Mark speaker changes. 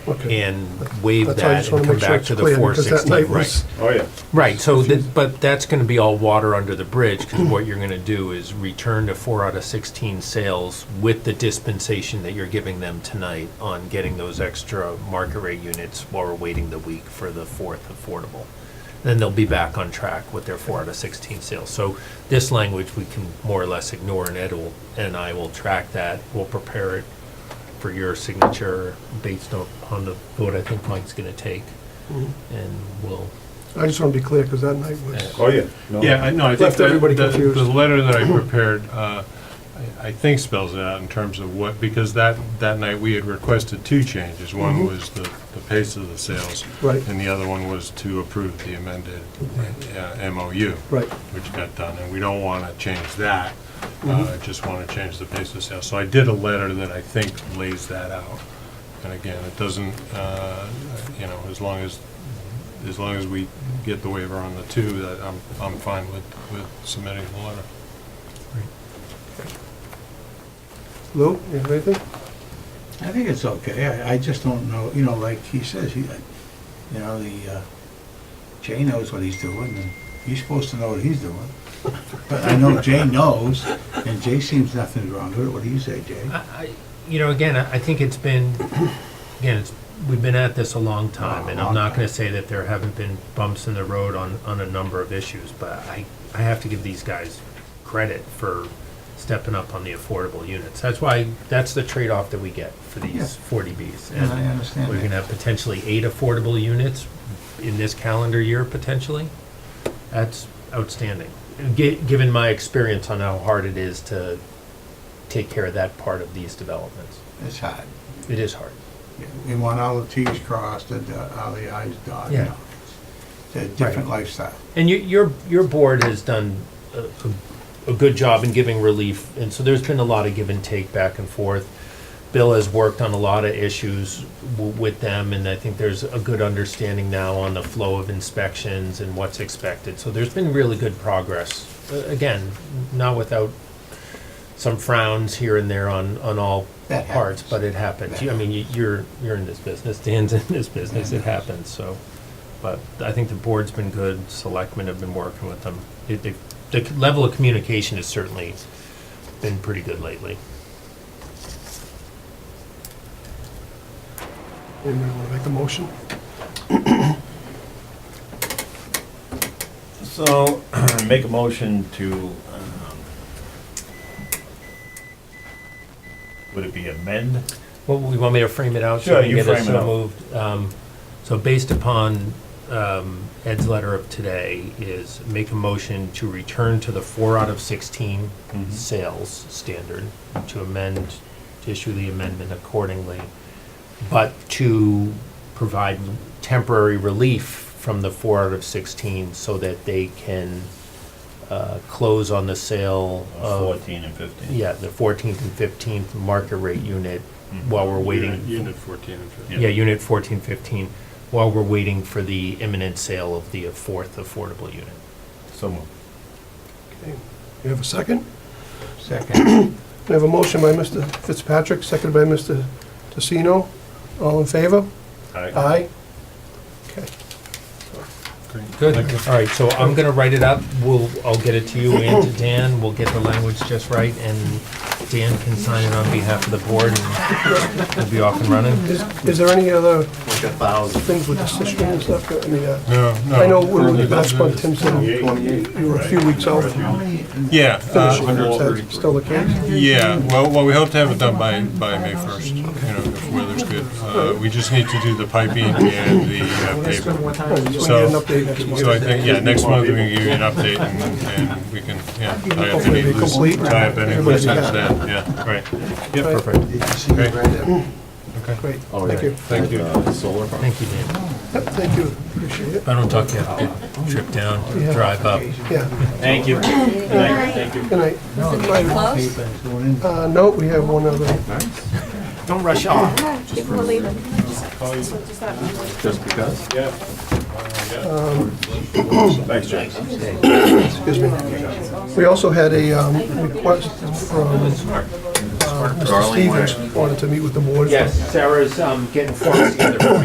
Speaker 1: Okay.
Speaker 2: and waive
Speaker 1: That's why I
Speaker 2: that
Speaker 1: just want
Speaker 2: and
Speaker 1: to
Speaker 2: come
Speaker 1: make sure
Speaker 2: back
Speaker 1: it's
Speaker 2: to
Speaker 1: clear
Speaker 2: the four
Speaker 1: because that
Speaker 2: sixteen,
Speaker 1: night was
Speaker 2: right.
Speaker 3: Oh, yeah.
Speaker 2: Right, so, that- but that's gonna be all water under the bridge, because what you're gonna do is return to four out of sixteen sales with the dispensation that you're giving them tonight on getting those extra market rate units while we're waiting the week for the fourth affordable. Then they'll be back on track with their four out of sixteen sales. So this language we can more or less ignore, and Ed will, and I will track that, we'll prepare it for your signature based on, on the vote I think Mike's gonna take, and we'll
Speaker 1: I just want to be clear because that night was,
Speaker 3: Oh, yeah. No.
Speaker 4: Yeah, I- no, I think
Speaker 1: Left
Speaker 4: that,
Speaker 1: everybody
Speaker 4: the,
Speaker 1: confused. Mm-hmm.
Speaker 4: the letter that I prepared, uh, I I think spells it out in terms of what, because that, that night we had requested two changes. One was the, the pace of the sales.
Speaker 1: Mm-hmm. Right.
Speaker 4: And the other one was to approve the amended uh, MOU.
Speaker 1: right.
Speaker 4: Which got done, and we don't want to change that.
Speaker 1: Mm-hmm.
Speaker 4: Uh, I just want to change the pace of sales. So I did a letter that I think lays that out. And again, it doesn't, uh, you know, as long as, as long as we get the waiver on the two, that I'm, I'm fine with, with submitting the letter.
Speaker 1: Lou, you have anything?
Speaker 5: I think it's okay, I, I just don't know, you know, like he says, he, you know, the, uh, Jay knows what he's doing, and he's supposed to know what he's doing. But I know Jay knows, and Jay seems nothing's wrong with it, what do you say, Jay?
Speaker 2: I, I- you know, again, I I think it's been, again, it's, we've been at this a long time, and I'm not gonna say that there haven't been bumps in the road on, on a number of issues, but I, I have to give these guys credit for stepping up on the affordable units. That's why, that's the trade-off that we get for these forty Bs.
Speaker 5: And I understand
Speaker 2: We're
Speaker 5: that.
Speaker 2: gonna have potentially eight affordable units in this calendar year, potentially. That's outstanding, Gi- given my experience on how hard it is to take care of that part of these developments.
Speaker 5: It's hard.
Speaker 2: It is hard.
Speaker 5: We want all the Ts crossed and uh, all the Is dotted, you
Speaker 2: Yeah.
Speaker 5: know. It's a different lifestyle.
Speaker 2: And you, your, your board has done a, a- a good job in giving relief, and so there's been a lot of give and take back and forth. Bill has worked on a lot of issues w- with them, and I think there's a good understanding now on the flow of inspections and what's expected. So there's been really good progress. Uh, Again, not without some frowns here and there on, on all
Speaker 5: That
Speaker 2: parts,
Speaker 5: happens.
Speaker 2: but it happens. You- I mean, you- you're, you're in this business, Dan's in this business, it happens, so. But I think the board's been good, selectmen have been working with them. It- they- The c- level of communication has certainly been pretty good lately.
Speaker 1: Anybody want to make a motion?
Speaker 3: So, make a motion to, um, would it be amend?
Speaker 2: Well, you want me to frame it out? so
Speaker 3: Sure,
Speaker 2: we can
Speaker 3: you
Speaker 2: get us
Speaker 3: frame it out.
Speaker 2: moved? Um, So based upon um, Ed's letter of today is make a motion to return to the four out of 16
Speaker 3: Mhm.
Speaker 2: Mm-hmm. sales standard, to amend, to issue the amendment accordingly, but to provide temporary relief from the four out of 16 so that they can uh, close on the sale of
Speaker 3: Uh, Fourteen and fifteen.
Speaker 2: yeah, the fourteenth and fifteenth market rate unit while we're
Speaker 4: Unit-
Speaker 2: waiting.
Speaker 4: Unit 14 and 15.
Speaker 2: Mm-hmm. Yeah, unit fourteen fifteen, while we're waiting for the imminent sale of the fourth affordable unit.
Speaker 3: So moved.
Speaker 1: Okay. You have a second?
Speaker 5: Second,
Speaker 1: We have a motion by Mr. Fitzpatrick, seconded by Mr. Tosino. All in favor?
Speaker 3: Aye.
Speaker 1: Aye. Okay.
Speaker 4: Great.
Speaker 2: Good,
Speaker 4: Thank you.
Speaker 2: all right, so I'm gonna write it up, we'll, I'll get it to you and to Dan, we'll get the language just right, and Dan can sign it on behalf of the board, and we'll be off and running.
Speaker 1: Is is there any other things with decision and stuff? I mean, uh,
Speaker 4: No, no.
Speaker 1: I know when we
Speaker 4: Further
Speaker 1: last
Speaker 4: business.
Speaker 1: one, Tim said you were a few weeks out from
Speaker 4: Yeah. uh,
Speaker 1: finishing. Is that still the case?
Speaker 4: Yeah, well, well, we hope to have it done by, by May first, you know, if weather's good. Uh, we just need to do the piping and the uh, paper.
Speaker 1: All right, so we
Speaker 4: So-
Speaker 1: get an update next month.
Speaker 4: So I think, yeah, next month we can give you an update and, and we can, yeah, tie up
Speaker 1: Hopefully
Speaker 4: any
Speaker 1: it'll be
Speaker 4: loose,
Speaker 1: complete.
Speaker 4: tie up any
Speaker 1: Everybody
Speaker 4: loose ends
Speaker 1: got
Speaker 4: then, yeah, right.
Speaker 2: Yeah, perfect,
Speaker 5: did you see
Speaker 4: Okay.
Speaker 5: right there?
Speaker 4: Okay,
Speaker 1: Great,
Speaker 3: Oh,
Speaker 1: thank you.
Speaker 2: thank
Speaker 4: thank you.
Speaker 2: you, Dan.
Speaker 1: Yep, Thank you, appreciate it.
Speaker 2: If I don't talk to you, I'll have to trip down,
Speaker 1: Yeah.
Speaker 2: drive up.
Speaker 1: Yeah,
Speaker 3: Thank you. Thank you.
Speaker 1: good night. Bye.
Speaker 6: Close?
Speaker 5: Paper is going in.
Speaker 1: Uh, no, we have one other.
Speaker 2: Don't rush off.
Speaker 6: People are leaving.
Speaker 3: Thanks, Jay.
Speaker 1: Excuse me. We also had a um, request from uh, Mr.
Speaker 3: Darling, where-
Speaker 1: Stevens wanted to meet with the board.
Speaker 2: Yes, Sarah's um, getting forms together for